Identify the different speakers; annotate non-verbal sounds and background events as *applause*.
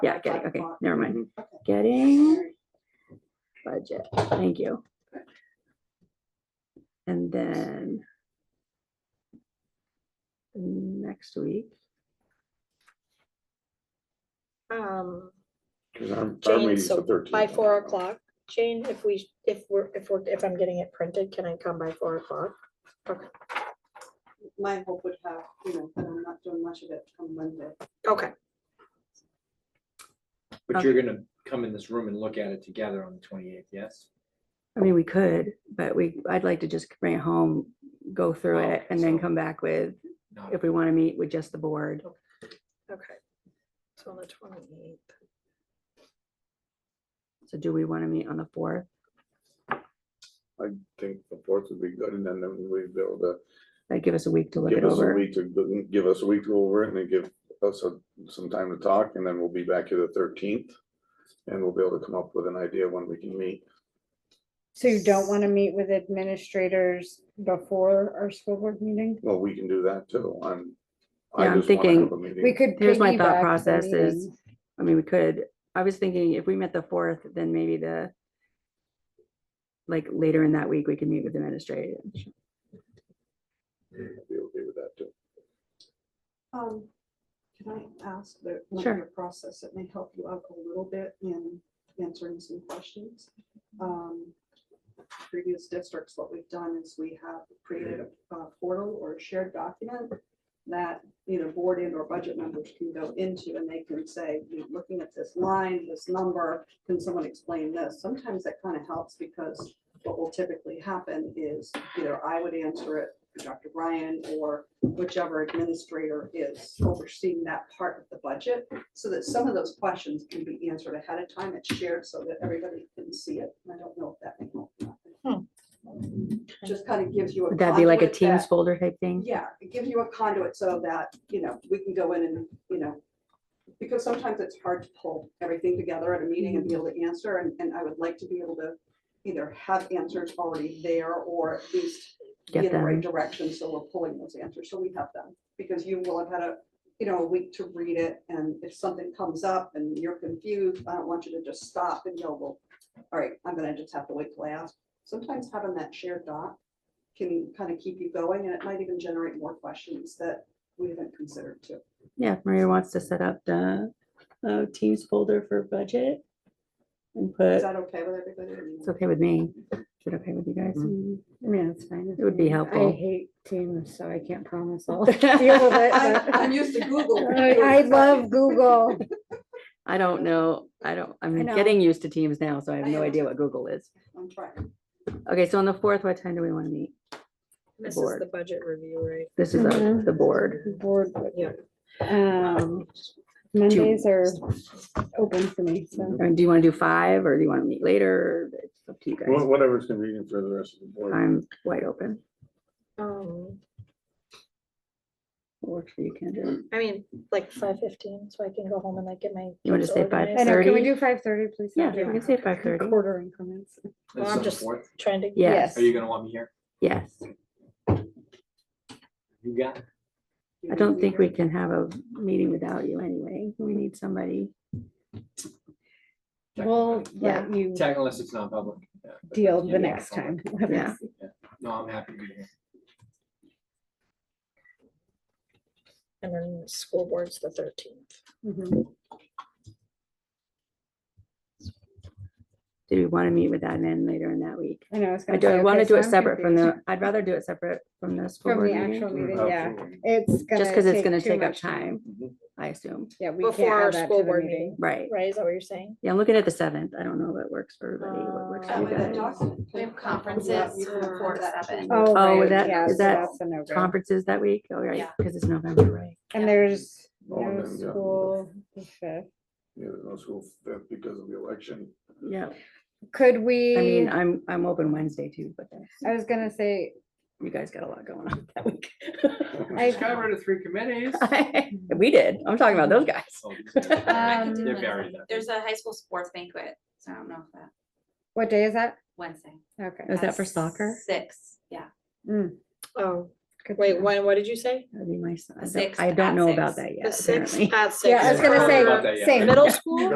Speaker 1: Yeah, getting, okay,
Speaker 2: o'clock.
Speaker 1: never mind.
Speaker 2: Okay.
Speaker 1: Getting budget, thank you. And then next week,
Speaker 3: Um,
Speaker 4: 'Cause our- our
Speaker 3: Jane,
Speaker 4: meeting's the
Speaker 3: so
Speaker 4: 13th.
Speaker 3: by four o'clock, Jane, if we, if we're, if we're, if I'm getting it printed, can I come by four o'clock?
Speaker 2: My hope would have, you know, that I'm not doing much of it come Monday.
Speaker 3: Okay,
Speaker 5: But you're gonna come in this room and look at it together on the twenty-eighth, yes?
Speaker 1: I mean, we could, but we, I'd like to just bring it home, go through
Speaker 5: Oh,
Speaker 1: it, and then
Speaker 5: so-
Speaker 1: come back with,
Speaker 5: No.
Speaker 1: if we want to meet with just the board.
Speaker 3: okay. So on the twenty-eighth.
Speaker 1: So do we want to meet on the fourth?
Speaker 4: I think the fourth would be good, and then then we'd be able to
Speaker 1: That give us a week to look
Speaker 4: give
Speaker 1: it
Speaker 4: us a
Speaker 1: over.
Speaker 4: week to, give us a week to go over it, and then give us a- some time to talk, and then we'll be back here the thirteenth. And we'll be able to come up with an idea when we can meet.
Speaker 6: So you don't want to meet with administrators before our school board meeting?
Speaker 4: Well, we can do that too. I'm. I
Speaker 1: Yeah, I'm
Speaker 4: just wanna have
Speaker 1: thinking
Speaker 4: a meeting.
Speaker 6: We could.
Speaker 1: Here's my thought
Speaker 6: piggyback the
Speaker 1: process is-
Speaker 6: meeting.
Speaker 1: I mean, we could, I was thinking if we met the fourth, then maybe the like later in that week, we could meet with administrative.
Speaker 4: I'd Be okay with that too.
Speaker 2: Um, can I ask the, one
Speaker 1: Sure.
Speaker 2: of your process, it may help you out a little bit in answering some questions. Um, Previous districts, what we've done is we have created a uh, portal or a shared document that either board and or budget members can go into and they can say, "You're looking at this line, this number, can someone explain this? Sometimes that kind of helps because what will typically happen is either I would answer it, or Dr. Ryan, or whichever administrator is overseeing that part of the budget, so that some of those questions can be answered ahead of time. It's shared so that everybody can see it. And I don't know if that may help. or not. Just kind of gives you.
Speaker 1: Would that be like a
Speaker 2: conduit that-
Speaker 1: Teams folder type thing?
Speaker 2: yeah, it gives you a conduit so that, you know, we can go in and, you know, because sometimes it's hard to pull everything together at a meeting and be able to answer, and, and I would like to be able to either have answers already there or at least be
Speaker 1: Get
Speaker 2: in the right
Speaker 1: them.
Speaker 2: direction, so we're pulling those answers, so we have them. Because you will have had a, you know, a week to read it, and if something comes up and you're confused, I don't want you to just stop and go, well, all right, I'm gonna just have to wait till I ask. Sometimes having that shared doc can kind of keep you going and it might even generate more questions that we haven't considered too.
Speaker 1: Yeah, if Maria wants to set up the uh, Teams folder for budget and
Speaker 2: Is
Speaker 1: put,
Speaker 2: that okay with everybody? I mean,
Speaker 1: it's okay with me. Is it okay with you guys?
Speaker 6: Mm.
Speaker 1: *laughs*
Speaker 6: I mean, it's fine. with
Speaker 1: mm-hmm. It would be
Speaker 6: me. I
Speaker 1: helpful.
Speaker 6: hate Teams, so I can't
Speaker 1: *laughs*
Speaker 6: promise I'll deal with it.
Speaker 2: I'm I'm
Speaker 6: but-
Speaker 2: used to Google.
Speaker 6: *laughs* I I love Google.
Speaker 1: I don't know. I don't, I'm
Speaker 6: know.
Speaker 1: getting used to Teams now, so I have
Speaker 2: I
Speaker 1: no
Speaker 2: am.
Speaker 1: idea what Google is.
Speaker 2: I'm trying.
Speaker 1: Okay, so on the fourth, what time do we want to meet?
Speaker 3: This is
Speaker 1: Board.
Speaker 3: the budget review, right?
Speaker 1: This is our-
Speaker 6: Mhm.
Speaker 1: the board.
Speaker 6: Board,
Speaker 3: Yeah.
Speaker 6: um, Mondays are open for me, so.
Speaker 1: I mean, do you want to do five or do you want to meet later? It's up to you guys.
Speaker 4: Wha- Whatever's convenient for the rest of the board.
Speaker 1: I'm wide open.
Speaker 3: Um,
Speaker 1: What works for you, Kendra?
Speaker 3: I mean, like five fifteen, so I can go home and like get my.
Speaker 1: You wanna
Speaker 3: kids
Speaker 1: say five?
Speaker 6: I
Speaker 3: organized.
Speaker 6: know, can we
Speaker 1: 5:30?
Speaker 6: do five thirty, please?
Speaker 1: Yeah, we
Speaker 3: Yeah.
Speaker 1: can say five thirty.
Speaker 6: Quarter increments.
Speaker 3: Well,
Speaker 5: This is
Speaker 3: I'm
Speaker 5: on the
Speaker 3: just-
Speaker 5: 4th?
Speaker 3: Trying to.
Speaker 1: Yes,
Speaker 5: Are you gonna want me here?
Speaker 1: yes.
Speaker 5: You got it.
Speaker 1: I don't think we can have a meeting without you anyway. We need somebody.
Speaker 5: Check
Speaker 6: We'll
Speaker 5: with
Speaker 1: Yeah.
Speaker 6: let you
Speaker 5: them. Tech, unless it's not public. Yeah.
Speaker 6: deal
Speaker 5: Yeah.
Speaker 6: the next time. *laughs*
Speaker 1: Yeah.
Speaker 5: No, I'm happy to be here.
Speaker 3: And then school board's the thirteenth.
Speaker 6: Mhm.
Speaker 1: Do we want to meet with admin later in that week?
Speaker 6: I know, I was
Speaker 1: I
Speaker 6: gonna
Speaker 1: do,
Speaker 6: say,
Speaker 1: I want to
Speaker 6: okay,
Speaker 1: do
Speaker 6: so
Speaker 1: it
Speaker 6: I'm
Speaker 1: separate from
Speaker 6: confused.
Speaker 1: the, I'd rather do it separate from the school
Speaker 6: From
Speaker 1: board
Speaker 6: the actual
Speaker 1: meeting.
Speaker 6: meeting, yeah.
Speaker 4: Absolutely. Mm-hmm.
Speaker 6: It's gonna.
Speaker 1: Just because it's going to
Speaker 6: too
Speaker 1: take up
Speaker 6: much
Speaker 1: time, I assume.
Speaker 6: Yeah, we can't
Speaker 3: Before our
Speaker 6: add that
Speaker 3: school
Speaker 6: to the
Speaker 3: board
Speaker 6: meeting.
Speaker 3: meeting,
Speaker 1: Right.
Speaker 3: right? Is that what you're saying?
Speaker 1: Yeah, I'm looking at the seventh. I don't know if it works for everybody. What works
Speaker 3: Uh,
Speaker 2: Oh,
Speaker 1: for you
Speaker 3: with
Speaker 1: guys?
Speaker 3: the doc-
Speaker 7: We have conferences for seven.
Speaker 6: Oh,
Speaker 1: Oh,
Speaker 6: right,
Speaker 1: is that-
Speaker 6: yeah,
Speaker 1: is
Speaker 6: so
Speaker 1: that
Speaker 6: that's a no-go.
Speaker 1: Conferences that week? All right,
Speaker 7: Yeah.
Speaker 1: because it's November, right?
Speaker 6: And there's
Speaker 4: Oh, and
Speaker 6: no
Speaker 4: then, yeah.
Speaker 6: school. the fifth.
Speaker 4: Yeah, there's no school f- because of the election.
Speaker 1: Yeah.
Speaker 6: Could
Speaker 1: I
Speaker 6: we,
Speaker 1: mean, I'm, I'm open Wednesday too, but that's-
Speaker 6: I was gonna say,
Speaker 1: you guys got a lot going on that week. *laughs*
Speaker 6: I,
Speaker 5: got rid of three committees.
Speaker 1: We did. I'm talking about those guys.
Speaker 5: Oh, these guys are-
Speaker 7: I could do
Speaker 6: Um,
Speaker 5: They're
Speaker 7: Wednesday.
Speaker 5: buried up.
Speaker 7: There's a high school sports banquet, so I don't know if that,
Speaker 6: what day is that?
Speaker 7: Wednesday.
Speaker 6: Okay.
Speaker 1: Was that
Speaker 7: at
Speaker 1: for soccer?
Speaker 7: Six, yeah.
Speaker 6: Mm,
Speaker 3: Oh,
Speaker 6: Good to
Speaker 3: Wait,
Speaker 6: know.
Speaker 3: when, what did you say?
Speaker 1: That'd be my, son. I don't-
Speaker 7: sixth
Speaker 1: I don't
Speaker 7: at
Speaker 1: know about
Speaker 7: six.
Speaker 1: that yet.
Speaker 3: The sixth
Speaker 1: apparently.
Speaker 3: at six.
Speaker 6: Yeah, I was gonna
Speaker 5: I
Speaker 3: for
Speaker 5: don't know about
Speaker 6: say,
Speaker 5: that yet.
Speaker 6: same.
Speaker 3: Middle school?